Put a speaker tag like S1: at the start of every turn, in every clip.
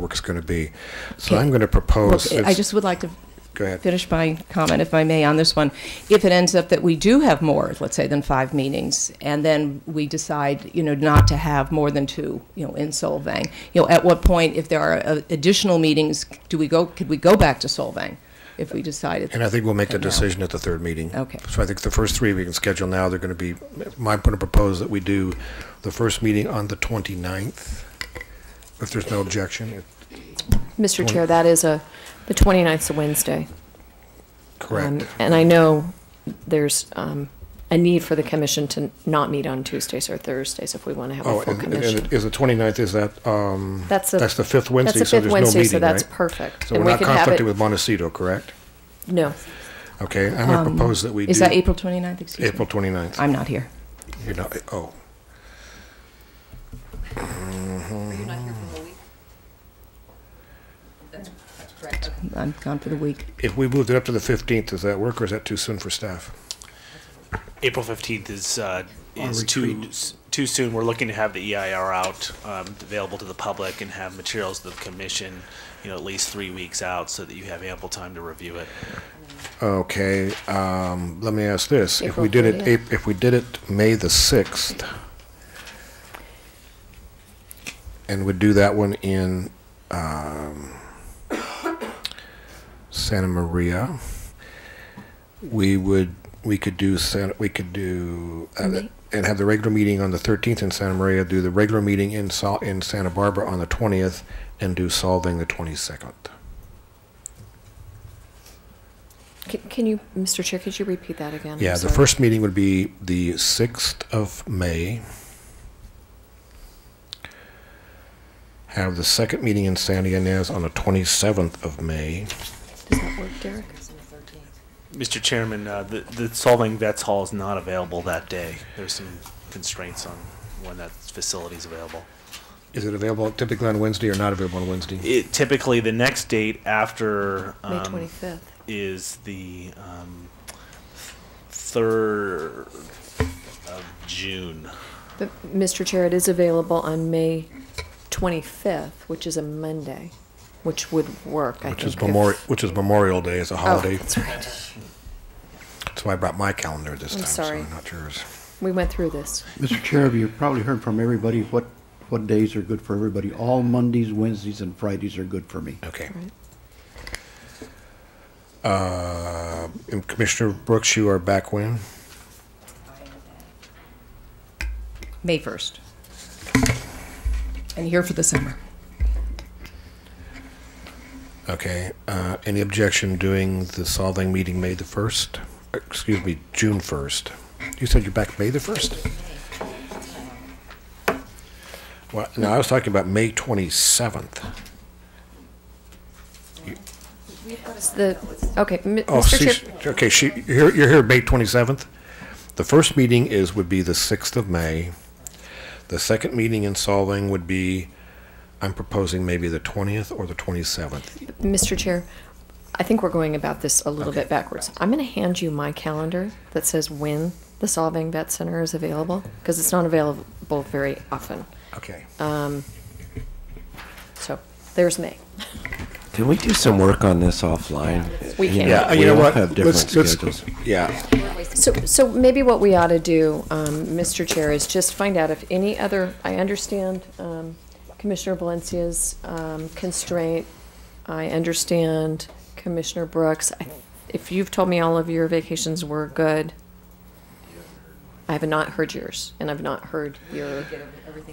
S1: book is going to be. So
S2: Okay.
S1: I'm going to
S2: Look,
S1: propose.
S2: I just would like to
S1: Go ahead.
S2: finish my comment, if I may, on this one. If it ends up that we do have more, let's say, than five meetings, and then we decide, you know, not to have more than two, you know, in Solvang, you know, at what point, if there are uh, additional meetings, do we go, could we go back to Solvang if we decided?
S1: And I think we'll make the
S2: Okay, no.
S1: decision at the third meeting.
S2: Okay.
S1: So I think the first three we can schedule now, they're going to be, my going to propose that we do the first meeting on the 29th, if there's no objection.
S3: Mr. Chair, that is a, the 29th's a Wednesday. Um,
S1: Correct.
S3: And I know there's um, a need for the commission to not meet on Tuesdays or Thursdays if we want to have
S1: Oh,
S3: a full
S1: and and
S3: commission.
S1: it- is the 29th, is that, um,
S3: That's a-
S1: that's the fifth Wednesday,
S3: That's a
S1: so
S3: fifth
S1: there's no
S3: Wednesday, so
S1: meeting,
S3: that's
S1: right?
S3: perfect.
S1: So
S3: And
S1: we're
S3: we
S1: not
S3: could have
S1: conflicted
S3: it-
S1: with Montecito, correct?
S3: No,
S1: Okay, I'm going
S3: Um,
S1: to propose that we do.
S2: Um, Is that April 29th, excuse me?
S1: April 29th.
S2: I'm not here.
S1: You're not, oh.
S2: I'm gone for the week.
S1: If we moved it up to the 15th, does that work, or is that too soon for staff?
S4: April 15th is, uh,
S1: Our
S4: is too, s- too soon. We're looking to have the EIR out, um, available to the public and have materials to the commission, you know, at least three weeks out so that you have ample time to review it.
S1: Okay, um, let me ask this. If we
S3: April
S1: did it, Ap- if we did it May the 6th, and would do that one in, um, Santa Maria, we would, we could do, San- we could do, uh, and have the regular meeting on the 13th in Santa Maria, do the regular meeting in Sol, in Santa Barbara on the 20th, and do solving the 22nd.
S3: C- can you, Mr. Chair, could you repeat that again? I'm
S1: Yeah, the
S3: sorry.
S1: first meeting would be the 6th of May. Have the second meeting in San Ynez on the 27th of May.
S3: Does that work, Derek?
S4: Mr. Chairman, uh, the, the Solving Vets Hall is not available that day. There's some constraints on when that facility's available.
S1: Is it available typically on Wednesday or not available on Wednesday?
S4: It, typically, the next date after,
S3: May
S4: um,
S3: 25th.
S4: is the um, third of June.
S3: But, Mr. Chair, it is available on May 25th, which is a Monday, which would work, I think.
S1: Which is
S3: if-
S1: Memorial, which is Memorial Day as a
S3: Oh,
S1: holiday.
S3: that's right.
S1: That's why I brought my calendar this
S3: I'm
S1: time, so
S3: sorry.
S1: not yours.
S3: We went through this.
S5: Mr. Chair, you've probably heard from everybody what, what days are good for everybody. All Mondays, Wednesdays, and Fridays are good for me.
S1: Okay.
S3: Right.
S1: Uh, and Commissioner Brooks, you are back when?
S2: May 1st. And here for the summer.
S1: Okay, uh, any objection doing the solving meeting May the 1st? Excuse me, June 1st. You said you're back May the 1st? Well, no, I was talking about May 27th.
S3: It's the, okay, m-
S1: Oh,
S3: Mr.
S1: see,
S3: Chair.
S1: she- okay, she, you're, you're here May 27th? The first meeting is, would be the 6th of May. The second meeting in solving would be, I'm proposing maybe the 20th or the 27th.
S3: Mr. Chair, I think we're going about this a little bit backwards. I'm going to hand you my calendar that says when the Solving Vet Center is available, because it's not available very often.
S1: Okay.
S3: So there's May.
S6: Can we do some work on this offline?
S3: We
S6: You
S3: can.
S6: know,
S1: Yeah,
S6: we
S1: Uh, you know
S6: all
S1: what?
S6: have different
S1: Let's- let's-
S6: schedules.
S1: Yeah,
S3: So, so maybe what we ought to do, um, Mr. Chair, is just find out if any other, I understand um, Commissioner Valencia's um, constraint. I understand Commissioner Brooks. I- If you've told me all of your vacations were good, I have not heard yours, and I've not heard your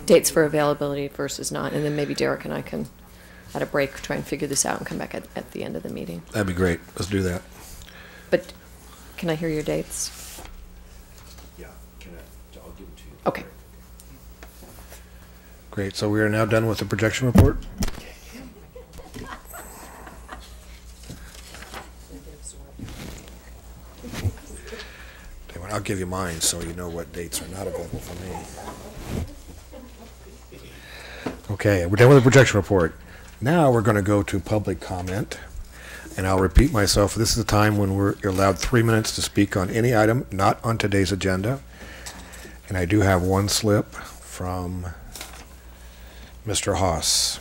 S3: dates for availability versus not. And then maybe Derek and I can, at a break, try and figure this out and come back at, at the end of the meeting.
S1: that'd be great. Let's do that.
S3: But can I hear your dates?
S6: Yeah, can I, I'll give it to you.
S3: Okay.
S1: Great, so we are now done with the projection report? Tell you what, I'll give you mine, so you know what dates are not available for me. Okay, we're done with the projection report. Now we're gonna go to public comment. And I'll repeat myself, this is the time when we're allowed three minutes to speak on any item not on today's agenda. And I do have one slip from Mr. Haas.